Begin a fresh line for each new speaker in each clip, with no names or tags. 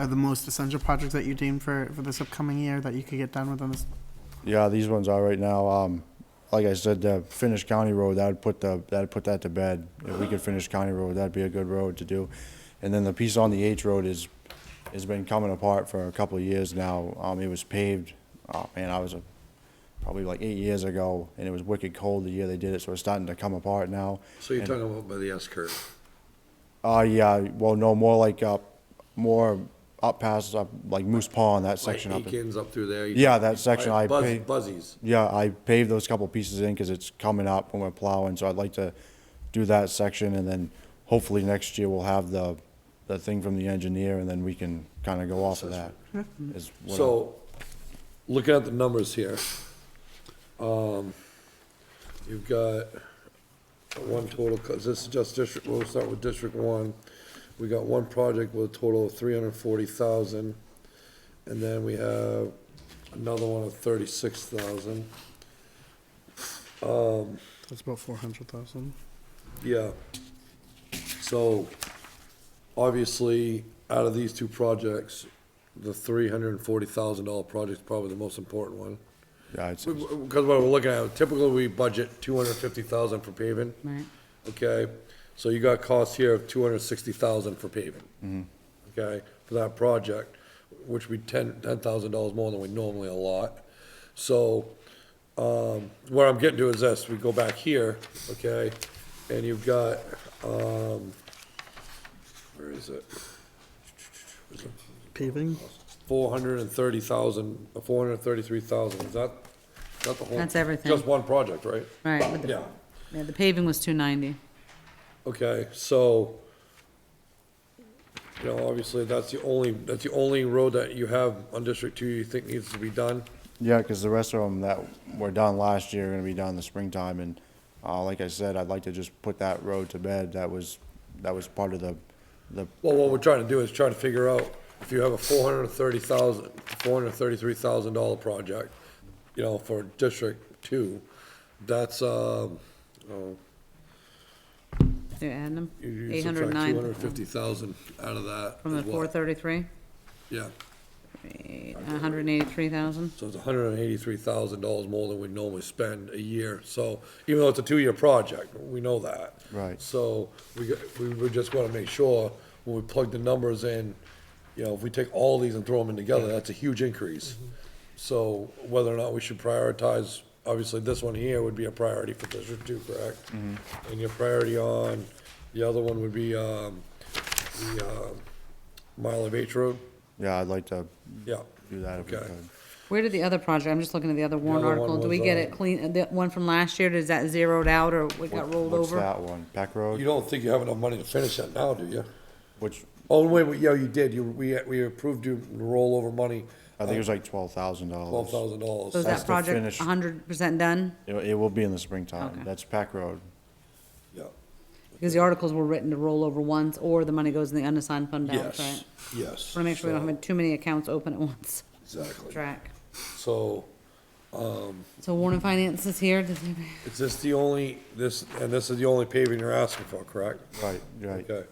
are the most essential projects that you deem for, for this upcoming year that you could get done within this?
Yeah, these ones are right now. Um, like I said, the Finnish County Road, that'd put the, that'd put that to bed. If we could finish County Road, that'd be a good road to do. And then the piece on the H Road is, has been coming apart for a couple of years now. Um, it was paved, oh man, I was a, probably like eight years ago, and it was wicked cold the year they did it, so it's starting to come apart now.
So you're talking about by the S curve?
Uh, yeah, well, no, more like up, more up past, up, like Moose Pond, that
Like
section up. in-
Eakins up through there?
Yeah, that section I
Buzz-
paved.
Buzzies.
Yeah, I paved those couple pieces in because it's coming up when we're plowing, so I'd like to do that section and then hopefully next year we'll have the, the thing from the engineer and then we can kind of go off of that.
Hmm.
is what I-
So, looking at the numbers here, um, you've got one total, co- this is just district, we'll start with District One. We got one project with a total of three hundred and forty thousand, and then we have another one of thirty-six thousand. Um,
That's about four hundred thousand.
Yeah. So, obviously, out of these two projects, the three hundred and forty thousand dollar project's probably the most important one.
Yeah, it's,
Because what we're looking at, typically we budget two hundred and fifty thousand for paving.
Right.
Okay, so you got costs here of two hundred and sixty thousand for paving. Okay, for that project, which we ten, ten thousand dollars more than we normally allot. So, um, where I'm getting to is this, we go back here, okay, and you've got, um, where is it? Where's it?
Paving?
four hundred and thirty thousand, four hundred and thirty-three thousand, is that, is that the whole?
That's everything.
Just one project, right?
Right, with the,
Yeah,
yeah, the paving was two ninety.
okay, so, you know, obviously, that's the only, that's the only road that you have on District Two you think needs to be done.
yeah, because the rest of them that were done last year are gonna be done in the springtime and, uh, like I said, I'd like to just put that road to bed. That was, that was part of the, the,
Well, what we're trying to do is try to figure out if you have a four hundred and thirty thousand, four hundred and thirty-three thousand dollar project, you know, for District Two, that's, um, oh,
They're adding them,
you- you
eight
subtract
hundred
two hundred and
nine
fifty thousand out of that.
from the
is what?
four thirty-three,
Yeah.
hundred and eighty-three thousand.
So it's hundred and eighty-three thousand dollars more than we normally spend a year, so, even though it's a two-year project, we know that.
Right.
So, we, got- we we just wanna make sure, when we plug the numbers in, you know, if we take all these and throw them in together, that's a huge increase. So, whether or not we should prioritize, obviously, this one here would be a priority for District Two, correct? And your priority on, the other one would be, um, the, um, Mile of H Road,
yeah, I'd like to
yeah.
do that if we
Okay.
could.
Where did the other project, I'm just looking at the other warrant
other one
article, do we
was,
get
uh,
it clean, the one from last year, does that zeroed out or it got rolled
What's
over?
that one? Peck Road?
You don't think you have enough money to finish that now, do you?
Which,
Oh, wait, wait, yeah, you did, you, we, we approved you rollover money,
I think it was like twelve thousand dollars.
twelve thousand
So is
dollars.
That's
that
the
project
finished-
hundred percent done?
It, it will be in the springtime.
Okay.
That's Pack Road.
Yeah.
Because the articles were written to roll over once, or the money goes in the unassigned fund balance, right?
Yes, yes.
Want to make sure we don't have too many accounts open at once,
Exactly.
track.
So,
So warrant and finance is here, does anybody?
is this the only, this, and this is the only paving you're asking for, correct?
Right, right.
Okay,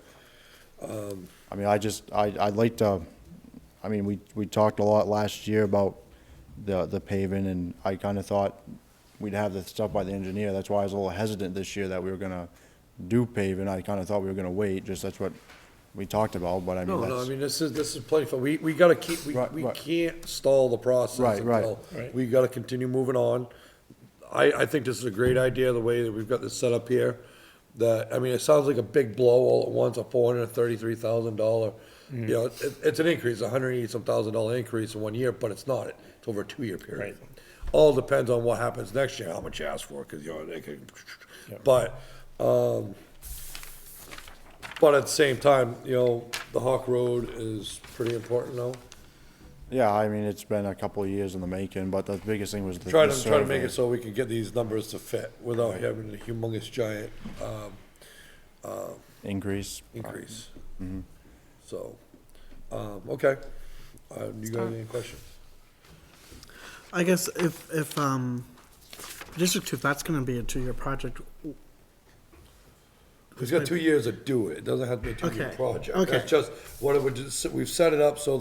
I mean, I just, I, I'd like to, I mean, we, we talked a lot last year about the, the paving, and I kinda thought we'd have the stuff by the engineer, that's why I was a little hesitant this year that we were gonna do paving, I kinda thought we were gonna wait, just that's what we talked about, but I mean,
no, no, I
that's,
mean, this is, this is plenty for, we, we gotta keep, we,
Right,
we
right.
can't stall the process.
Right, right.
until- We gotta continue moving on. I, I think this is a great idea, the way that we've got this set up here. That, I mean, it sounds like a big blow all at once, a four hundred and thirty-three thousand dollar, you know, it, it's an increase, a hundred and eighty-some thousand dollar increase in one year, but it's not. It's over a two-year period. All depends on what happens next year, how much you ask for, cause you know, they could, but, um, but at the same time, you know, the Hawk Road is pretty important now.
yeah, I mean, it's been a couple of years in the making, but the biggest thing was the
Try
the
to, try to make
survey.
it so we can get these numbers to fit without having a humongous giant, um,
Increase.
increase. So, um, okay. Uh, you got any questions?
I guess if, if, um, District Two, if that's gonna be a two-year project,
He's got two years to do it. It doesn't have to be a two-year
Okay,
project.
okay.
That's just, what it would, just- we've set it up so